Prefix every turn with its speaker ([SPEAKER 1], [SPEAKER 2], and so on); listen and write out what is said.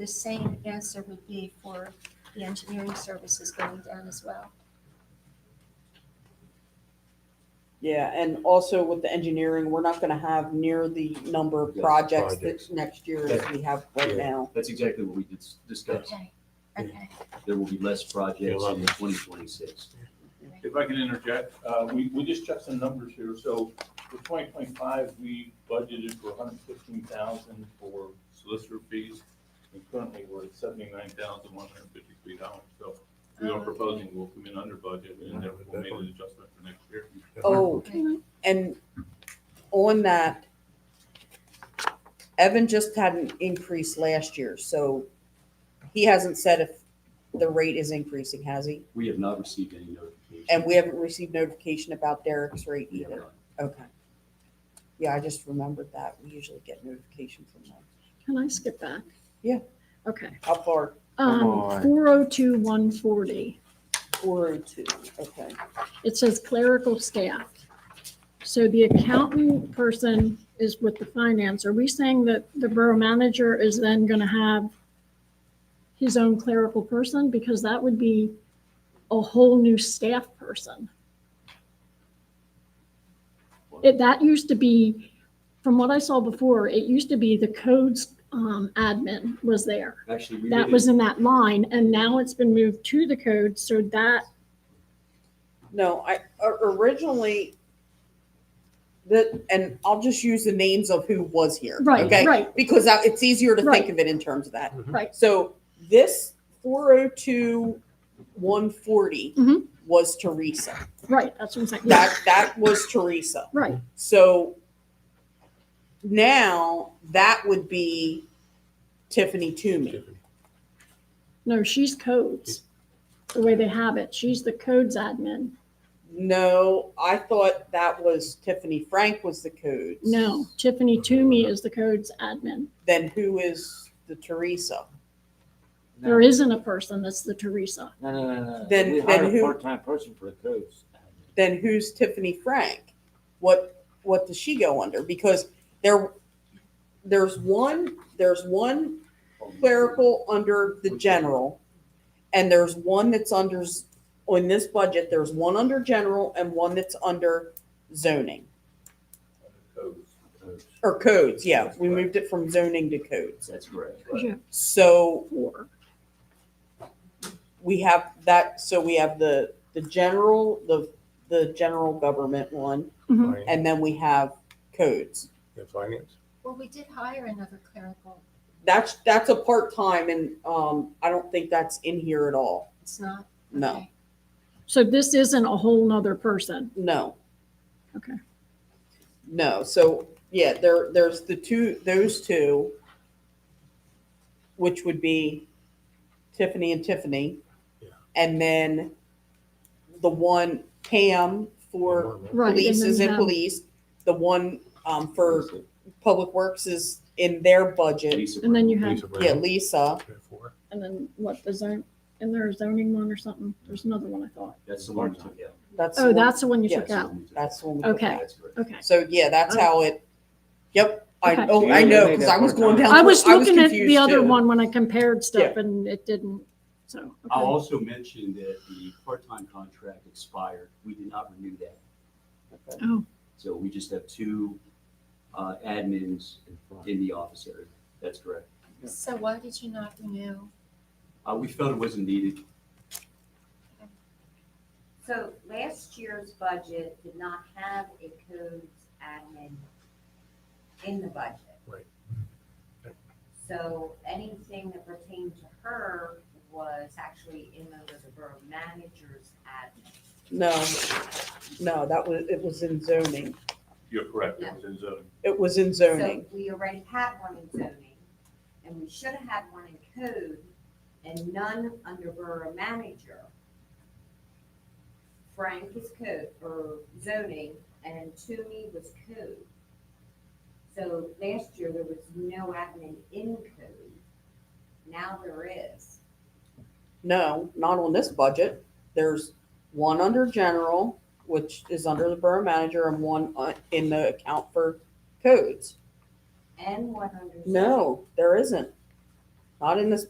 [SPEAKER 1] the same answer would be for the engineering services going down as well.
[SPEAKER 2] Yeah, and also with the engineering, we're not gonna have near the number of
[SPEAKER 3] Yeah,
[SPEAKER 2] projects
[SPEAKER 3] projects.
[SPEAKER 2] that next year that we have right
[SPEAKER 3] Yeah.
[SPEAKER 2] now.
[SPEAKER 4] That's exactly what we dis- discussed.
[SPEAKER 1] Okay, okay.
[SPEAKER 4] There will be less
[SPEAKER 3] Yeah,
[SPEAKER 4] projects
[SPEAKER 3] love
[SPEAKER 4] in
[SPEAKER 3] it.
[SPEAKER 4] twenty twenty-six.
[SPEAKER 5] If I can interject, uh, we, we just checked some numbers here, so for twenty twenty-five, we budgeted for hundred fifteen thousand for solicitor fees. And currently, we're at seventy-nine thousand one hundred fifty-three dollars, so we are proposing we'll come in under budget and then we'll make an adjustment for next year.
[SPEAKER 2] Oh, and on that, Evan just had an increase last year, so he hasn't said if the rate is increasing, has he?
[SPEAKER 4] We have not received any notification.
[SPEAKER 2] And we haven't received notification about Derek's rate
[SPEAKER 4] We have
[SPEAKER 2] either.
[SPEAKER 4] not.
[SPEAKER 2] Okay. Yeah, I just remembered that. We usually get notification from them.
[SPEAKER 6] Can I skip back?
[SPEAKER 2] Yeah.
[SPEAKER 6] Okay.
[SPEAKER 2] How far?
[SPEAKER 3] Come
[SPEAKER 6] Um,
[SPEAKER 3] on.
[SPEAKER 6] four oh two, one forty.
[SPEAKER 2] Four oh two, okay.
[SPEAKER 6] It says clerical staff. So the accountant person is with the finance. Are we saying that the borough manager is then gonna have his own clerical person? Because that would be a whole new staff person. It, that used to be, from what I saw before, it used to be the codes, um, admin was there.
[SPEAKER 4] Actually, we
[SPEAKER 6] that
[SPEAKER 4] did
[SPEAKER 6] was
[SPEAKER 4] it.
[SPEAKER 6] in that line, and now it's been moved to the code, so that,
[SPEAKER 2] No, I o- originally the and I'll just use the names of who was here.
[SPEAKER 6] right,
[SPEAKER 2] Okay.
[SPEAKER 6] right,
[SPEAKER 2] Because I- it's easier to think
[SPEAKER 6] Right.
[SPEAKER 2] of it in terms of that.
[SPEAKER 6] Right.
[SPEAKER 2] So this four oh two one forty
[SPEAKER 6] Mhm.
[SPEAKER 2] was Teresa.
[SPEAKER 6] right, that's what I'm saying, yeah,
[SPEAKER 2] That that was Teresa.
[SPEAKER 6] right,
[SPEAKER 2] So now that would be Tiffany Toomey.
[SPEAKER 6] no, she's codes, the way they have it, she's the codes admin,
[SPEAKER 2] No, I thought that was Tiffany Frank was the code.
[SPEAKER 6] no, Tiffany Toomey is the codes admin,
[SPEAKER 2] Then who is the Teresa?
[SPEAKER 6] there isn't a person that's the Teresa,
[SPEAKER 3] No, no, no, no.
[SPEAKER 2] Then-
[SPEAKER 3] Uh, We hired
[SPEAKER 2] then
[SPEAKER 3] a
[SPEAKER 2] who-
[SPEAKER 3] Part-time person for the codes.
[SPEAKER 2] Then who's Tiffany Frank? What what does she go under? Because there there's one there's one clerical under the general, and there's one that's under, z- on this budget, there's one under general and one that's under zoning,
[SPEAKER 5] Codes.
[SPEAKER 2] or codes, yeah, we moved it from zoning to codes.
[SPEAKER 4] That's correct.
[SPEAKER 6] Yeah,
[SPEAKER 2] So
[SPEAKER 6] four,
[SPEAKER 2] we have that, so we have the, the general, the, the general government one,
[SPEAKER 6] Mhm.
[SPEAKER 2] and then we have codes.
[SPEAKER 3] Finance.
[SPEAKER 1] Well, we did hire another clerical.
[SPEAKER 2] That's, that's a part-time and, um, I don't think that's in here at all.
[SPEAKER 1] It's not.
[SPEAKER 2] No.
[SPEAKER 1] okay.
[SPEAKER 6] so this isn't a whole nother person,
[SPEAKER 2] No.
[SPEAKER 6] Okay.
[SPEAKER 2] No, so, yeah, there, there's the two, those two, which would be Tiffany and Tiffany.
[SPEAKER 3] Yeah.
[SPEAKER 2] And then the one Pam for
[SPEAKER 6] right.
[SPEAKER 2] police is in
[SPEAKER 6] then
[SPEAKER 2] police, the one, um, for public works is in their budget.
[SPEAKER 4] Lisa
[SPEAKER 6] have- And then you have,
[SPEAKER 2] Yeah, Lisa,
[SPEAKER 6] and then what, the zone, and there's zoning one or something, there's another one I thought,
[SPEAKER 4] That's the one we took out.
[SPEAKER 2] that's. the
[SPEAKER 6] oh,
[SPEAKER 2] one-
[SPEAKER 6] that's the one you
[SPEAKER 2] Yeah,
[SPEAKER 6] took
[SPEAKER 4] That's the
[SPEAKER 6] out,
[SPEAKER 4] one we took out.
[SPEAKER 2] That's the one. we took
[SPEAKER 6] okay,
[SPEAKER 2] out.
[SPEAKER 4] That's correct.
[SPEAKER 6] okay.
[SPEAKER 2] So, yeah, that's how it, yep, I,
[SPEAKER 6] Okay.
[SPEAKER 2] oh, I
[SPEAKER 3] Yeah,
[SPEAKER 2] know,
[SPEAKER 3] they made
[SPEAKER 2] because
[SPEAKER 3] that
[SPEAKER 2] I was
[SPEAKER 3] part
[SPEAKER 2] going
[SPEAKER 3] time.
[SPEAKER 2] down.
[SPEAKER 6] I was looking at the
[SPEAKER 2] confused,
[SPEAKER 6] other
[SPEAKER 2] too.
[SPEAKER 6] one when I compared stuff and it didn't, so.
[SPEAKER 4] I'll
[SPEAKER 6] okay.
[SPEAKER 4] also mention that the part-time contract expired. We did not renew that.
[SPEAKER 6] Oh.
[SPEAKER 4] So we just have two uh, admins in the office area. That's correct.
[SPEAKER 1] So why did you not renew?
[SPEAKER 4] Uh, We felt it wasn't needed.
[SPEAKER 7] So last year's budget did not have a codes admin in the budget.
[SPEAKER 3] Right.
[SPEAKER 7] So anything that pertained to her was actually in the the borough manager's admin.
[SPEAKER 2] No, no, that was, it was in zoning.
[SPEAKER 5] You're correct, it was in zoning.
[SPEAKER 2] It was in
[SPEAKER 7] So
[SPEAKER 2] zoning.
[SPEAKER 7] we already had one in zoning, and we should have had one in code, and none under borough manager. Frank is code, or zoning, and Toomey was code. So last year, there was no admin in code. Now there is.
[SPEAKER 2] No, not on this budget. There's one under general, which is under the borough manager, and one uh, in the account for codes.
[SPEAKER 7] And one under.
[SPEAKER 2] No, there isn't. not in this